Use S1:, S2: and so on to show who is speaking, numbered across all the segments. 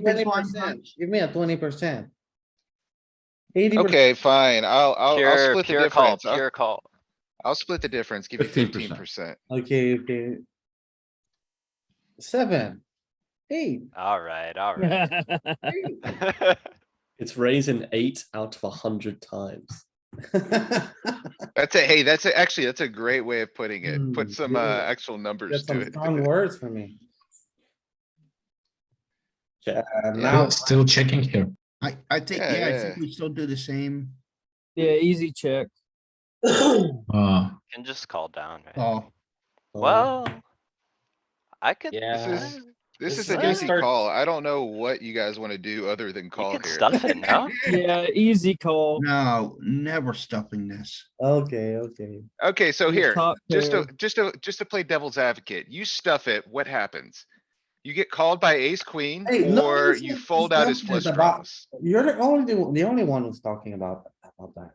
S1: Twenty
S2: 20%.
S1: percent, give me a twenty percent. Eighty.
S3: Okay, fine. I'll, I'll, I'll
S4: Pure,
S3: split the
S4: pure call,
S3: difference. I'll-
S4: pure call.
S3: I'll split the difference, give you fifteen
S5: 15%.
S3: percent.
S1: Okay, okay. Seven, eight,
S4: Alright, alright.
S6: It's
S1: three.
S6: raising eight out of a hundred times.
S3: That's a, hey, that's a, actually, that's a great way of putting it.
S1: Mm,
S3: Put some, uh,
S1: yeah.
S3: actual numbers
S1: That's
S3: to
S1: some
S3: it.
S1: strong words for me.
S6: Yeah.
S1: Uh,
S3: Yeah.
S1: now,
S5: Still checking here.
S7: I, I think,
S3: Yeah,
S7: yeah, I
S3: yeah.
S7: think we still do the same.
S8: Yeah, easy check.
S5: Uh,
S4: Can just call down, right?
S7: Oh,
S4: Well. I could.
S3: This
S4: I-
S3: is, this
S4: This
S3: is a
S4: is gonna
S3: goosey
S4: start-
S3: call. I don't know what you guys wanna do other than call
S4: You could
S3: here.
S4: stuff it, no?
S8: Yeah, easy call.
S7: no, never stuffing this.
S1: okay, okay.
S3: Okay, so
S8: Your
S3: here,
S8: top
S3: just to,
S8: pair.
S3: just to, just to play devil's advocate, you stuff it, what happens? You get called by ace queen
S1: Hey, no
S3: or
S1: one's
S3: you
S1: not
S3: fold out his
S1: stuffing
S3: flush
S1: it about-
S3: draws.
S1: You're the only, the only one who's talking about, about that.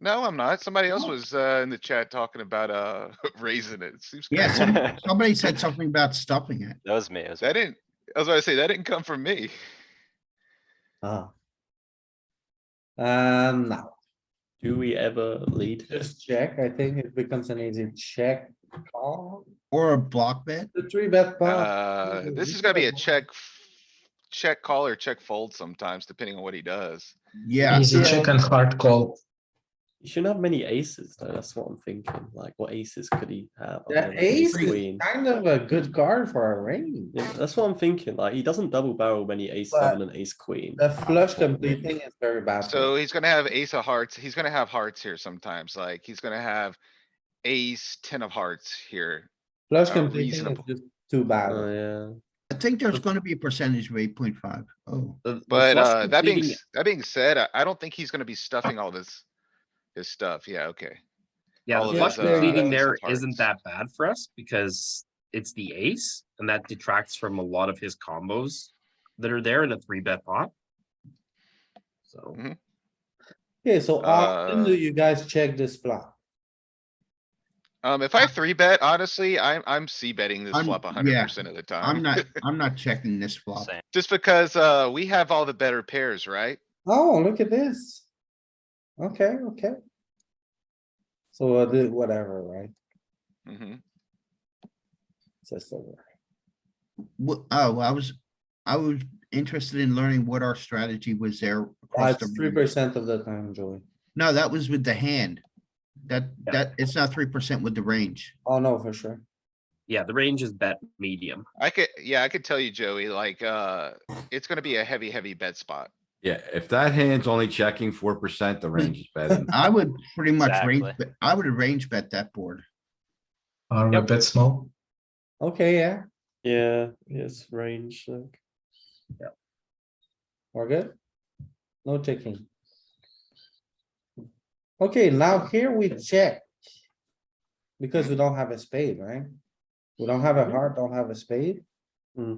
S3: No, I'm not. Somebody else was, uh, in the chat talking about, uh, raising it. Seems
S7: Yeah,
S3: crazy.
S7: some- somebody said something about stuffing it.
S4: That was me, it was. me.
S3: That didn't, I was about to say, that didn't come from me.
S1: Ah. Um, now,
S6: Do we ever lead?
S1: just check, I think it becomes an easy check call,
S7: Or a block bet?
S1: the three bet. pot.
S3: Uh,
S1: ooh,
S3: this
S1: you
S3: is gonna
S1: got
S3: be a
S1: one.
S3: check. f- Check call or check fold sometimes, depending on what he does.
S7: Yeah,
S5: easy
S1: yeah.
S5: check and hard call.
S6: He shouldn't have many aces, though. That's what I'm thinking. Like, what aces could he have?
S1: The
S6: other than
S1: ace is
S6: queen?
S1: kind of a good card for a range.
S6: Yeah, that's what I'm thinking. Like, he doesn't double barrel many ace
S1: But
S6: seven and ace queen.
S1: The flush completing is very bad. for
S3: So
S1: me.
S3: he's gonna have ace of hearts. He's gonna have hearts here sometimes, like he's gonna have ace, ten of hearts here.
S1: Flush
S3: uh,
S1: completing is
S3: reasonable.
S1: just too
S6: Oh,
S1: bad.
S6: yeah.
S7: I think there's gonna be a percentage of eight point five. Oh,
S6: The- the
S3: But,
S6: flush
S3: uh, that being,
S6: completing-
S3: s- that being said, I, I don't think he's gonna be stuffing all this. His stuff, yeah, okay.
S9: Yeah,
S3: all
S9: the
S3: of
S9: flush
S3: his, uh,
S9: completing there
S3: his parts.
S9: isn't that bad for us because it's the ace and that detracts from a lot of his combos that are there in a three bet pot. So
S6: Hmm.
S1: Okay, so often
S3: Uh,
S1: do you guys check this flop?
S3: Um, if I three bet, honestly, I'm, I'm C betting this
S7: I'm-
S3: flop a
S7: yeah,
S3: hundred percent of the time.
S7: I'm not, I'm not checking this flop.
S4: Same.
S3: Just because, uh, we have all the better pairs, right?
S1: Oh, look at this. Okay, okay. So uh, the- whatever, right?
S3: hmm
S1: It's just over.
S7: Wh- Oh, I was, I was interested in learning what our strategy was there. across the
S1: That's three
S7: range.
S1: percent of the time, Joey.
S7: No, that was with the hand. That,
S9: Yeah.
S7: that, it's not three percent with the range.
S1: Oh, no, for sure.
S9: yeah, the range is bet medium.
S3: I could, yeah, I could tell you, Joey, like, uh, it's gonna be a heavy, heavy bet spot.
S5: Yeah, if that hand's only checking four percent, the range is better.
S7: I would pretty much range,
S4: Exactly.
S7: bet- I would arrange bet that board.
S5: Are we
S9: Yep.
S5: bet small?
S1: Okay, yeah,
S6: Yeah, yes, range. Like.
S1: we're good. No checking. Okay, now here we check. Because we don't have a spade, right? We don't have a heart, don't have a spade.
S6: Hmm.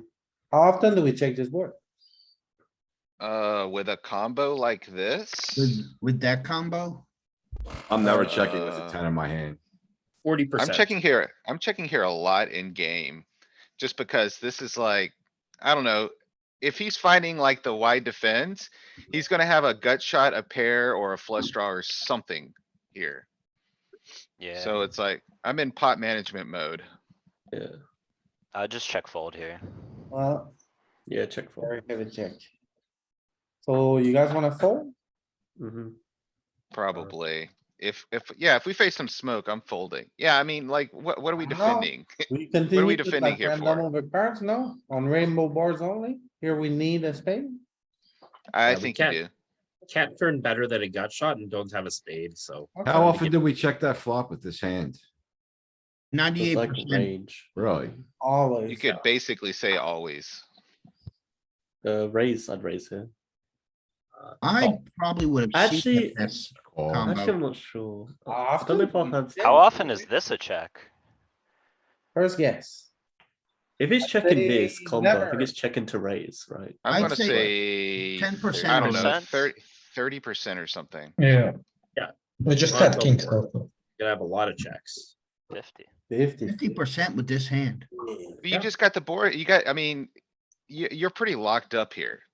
S1: How often do we check this board?
S3: Uh, with a combo like this,
S7: With, with that combo,
S5: I'm never checking with a
S3: Uh,
S5: ten in my hand.
S9: Forty
S3: I'm
S9: percent.
S3: checking here, I'm checking here a lot in game. Just because this is like, I don't know, if he's finding like the wide defense, he's gonna have a gut shot, a pair or a flush draw or something here.
S4: Yeah,
S3: So it's like, I'm in pot management mode.
S6: Yeah,
S4: I'll just check fold here.
S1: Well,
S6: yeah, check
S1: very
S6: for.
S1: heavy check. So you guys wanna fold?
S6: Mm-hmm.
S3: Probably. If, if, yeah, if we face some smoke, I'm folding. Yeah, I mean, like, what, what are we
S1: No.
S3: defending?
S1: We continue with
S3: defending
S1: like
S3: here
S1: random
S3: for?
S1: over cards, no? On rainbow bars only? Here we need a spade?
S3: I
S9: Yeah, we
S3: think you
S9: can't-
S3: do.
S9: Can't turn better than a gut shot and don't have a spade, so
S5: How
S1: Okay.
S5: often do we check that flop with this hand?
S7: ninety-eight
S6: like
S7: percent.
S6: range.
S5: Really?
S1: Always.
S3: You could basically say always.
S6: Uh, raise, I'd raise here.
S7: I probably would have.
S6: Actually,
S7: Yes,
S5: Call.
S4: Oh.
S7: Combo.
S6: Actually, I'm not sure. I
S1: Often
S6: don't know if I'll
S1: we
S6: have.
S1: check.
S4: How often is this a check?
S1: First guess.
S6: If it's checking this
S1: say
S6: combo, I think
S1: never.
S6: it's checking to raise, right?
S3: I'm
S7: I'd
S3: gonna say.
S7: say 10%
S3: I don't know,
S4: 10%.
S3: thirty, thirty percent or something.
S5: Yeah.
S9: Yeah.
S5: We
S9: just Well, had go kings for it. you're gonna have a lot of checks.
S4: Fifty.
S1: Fifty.
S7: fifty percent with this hand.
S3: But You just got the board, you got, I mean, you, you're pretty locked up here.